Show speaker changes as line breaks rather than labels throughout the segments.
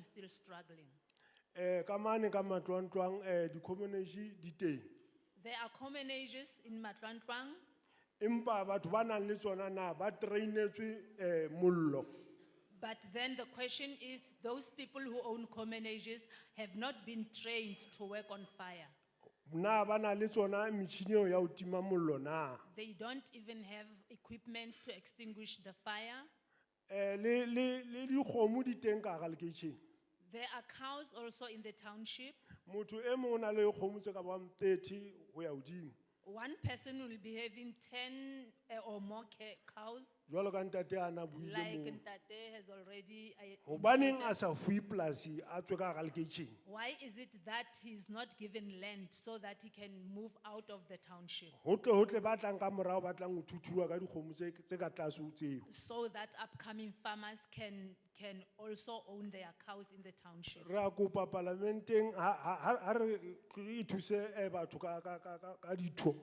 still struggling.
Eh, kamane kama tuan tuan, eh, di community di te.
There are common ages in Matlantwang,
Impa batho ba nang le tsona na, ba trainetswe eh, mollo.
but then the question is those people who own common ages have not been trained to work on fire.
Na ba na le tsona metjhini eo ya ho tima mollo na.
They don't even have equipment to extinguish the fire.
Eh, le, le, le dikgomo di teng ka hara lekeisheneng.
There are cows also in the township.
Motho e mong o na le dikgomo tse ka bang 30 ho ya hodimo.
One person will be having 10 uh, or more ca- cows,
Jwalo ka ntate a na buile
like
moo.
Ntate has already. uh,
Hobaneng
indicated.
a sa fuwe polasi a tswe ka hara lekeisheneng?
Why is it that he's not given land so that he can move out of the township?
Hotle hotle ba tlang ka morao ba tlang ho thuthuwa ka dikgomo tse tse ka tlase ho tseo.
So that upcoming farmers can, can also own their cows in the township.
Re a kopa palamenteng, ha, ha, ha- ha re re ithuse eh batho ka, ka, ka, ka, ka ditho.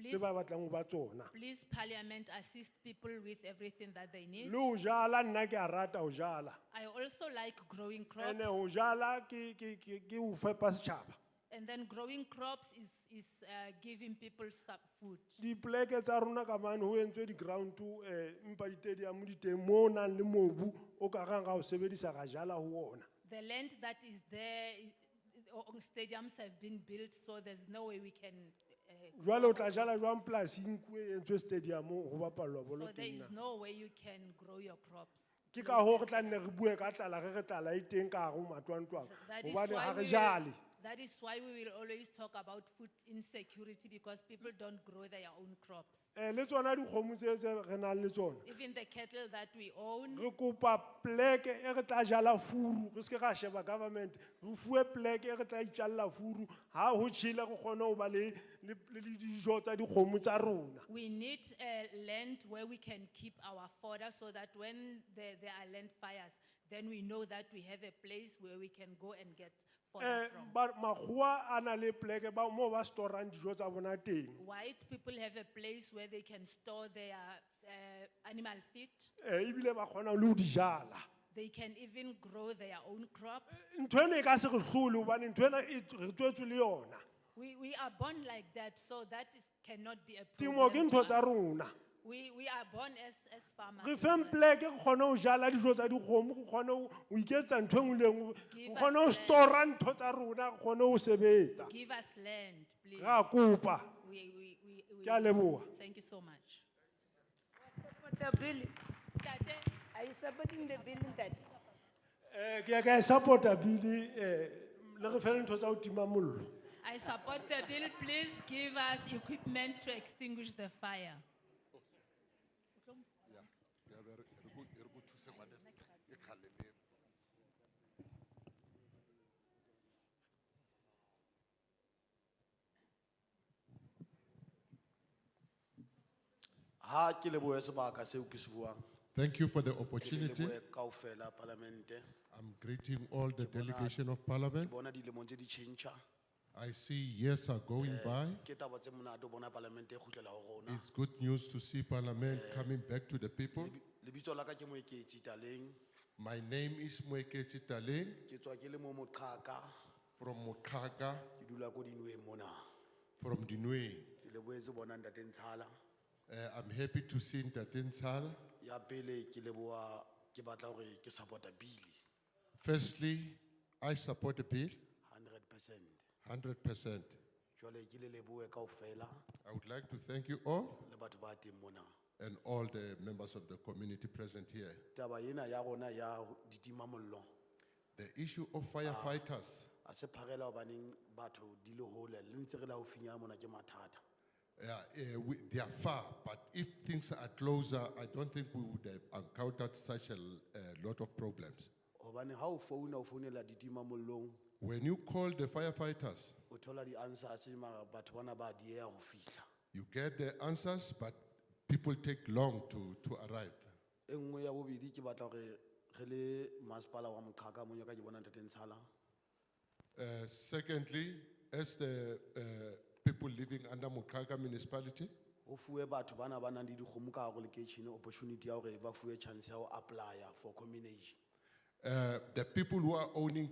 Tse
Please,
ba batlang ho ba tsona.
please parliament assist people with everything that they need.
Le ho jala nna ke a rata ho jala.
I also like growing crops
Ene ho jala ke, ke, ke, ke ho fepa setjhaba.
and then growing crops is, is uh, giving people some food.
Dipleke tsa rona ka mane ho entswe di ground to eh mpa di stadium di teng mo ho nang le mobu o ka rang ka ho sebedisa ka jala ho ona.
The land that is there, i- i- o- stadiums have been built, so there's no way we can. uh,
Jwale o tla jala jwang polasi nkuwe e entswe stadium ho bapallwa
So
bolo
there
teng
is
na.
no way you can grow your crops.
Ke ka ho re tla nne re bue ka tlala re re tlala e teng ka hare ho matlwantlwang.
That is
Hobane ha
why
re
we
jale.
will, that is why we will always talk about food insecurity because people don't grow their own crops.
Eh le tsona dikgomo tse tse re nang le tsona.
Even the cattle that we own,
Re kopa pleke e re tla jala furu, re se ke ra sheba government. Re fuwe pleke e re tla itjalla furu, ha ho tjhela re kgone ho ba le le le dijo tsa dikgomo tsa rona.
we need uh, land where we can keep our fodder so that when there, there are land fires, then we know that we have a place where we can go and get
Eh
fodder from.
ba makgowa a na le pleke ba mo ba storang dijo tsa bona teng.
White people have a place where they can store their uh, animal feed.
Eh ebile ba kgona le ho di jala.
They can even grow their own crops.
Nthwena e ka se re hlole hobane nthwena e tswe- re tswetswe le yona.
We, we are born like that, so that is, cannot be a
Temo ke
problem.
ntho
to
tsa
us.
rona.
We, we are born as, as farmers.
Re
as
feng
well.
pleke re kgone ho jala dijo tsa dikgomo, re kgone ho ho iketsa ntho enngwe le enngwe,
Give
re kgone ho
us land.
store ntho tsa rona, re kgone ho sebetsa.
Give us land, please.
Ra kopa.
We, we, we, we,
Ke a leboha.
Thank you so much.
Support the bill.
Ntate,
Are you supporting the bill, Ntate?
Eh ke ya ka e support-a bill-e, eh le re fe le ntho tsa ho tima mollo.
I support the bill. Please give us equipment to extinguish the fire.
Ya, ya be re re go re go thuse ngwane e khaleme.
ha ke lebohe sebaka seo ke se buang
Thank you for the
Ke le
opportunity.
lebohe kaofela parlamente
I'm greeting all the delegation of
ke
parliament.
bona dilemong tse di tšhentšha
I see years are going by.
ke taba tse monate o bona parlamente e kgutlela go rona
It's good news to see parliament coming back to the people.
lebitso la ka ke moeketsi taleng
My name is Mweketi Taleng
ke tswa ke le mo moqhaka
from Mokaga,
ke dula ko dinweng mona
from Dinwe.
ke leboetse bona ntate ntshala
Uh, I'm happy to see Ntatensal.
ya pele ke leboa ke batla gore ke supporta bile
Firstly, I support the bill
100 percent
100%.
jale ke le leboe kaofela
I would like to thank you all
le batho ba teng mona
and all the members of the community present here.
taba ena ya rona ya ho- ditimamollo
The issue of firefighters.
a se pharela obaneng batho di le hole le ntse re la ofinya mona ke mathata
Yeah, eh, we, they are far, but if things are closer, I don't think we would have encountered such a l- a lot of problems.
hobane ha o founa o founela ditima mollong
When you call the firefighters,
o thola di-answers mara batho bana ba dieya ho fihla
you get the answers, but people take long to, to arrive.
e nngwe ya bobedi ke batla gore re le masepala wa moqhaka monyo ka ke bona ntate ntshala
Uh, secondly, as the uh, people living under Mukaga municipality,
ho fuwe batho bana ba nang le dikgomo ka gare go lekeishene opportunity ya gore ba fuwe chance ya ho apply-a for communation
Uh, the people who are owning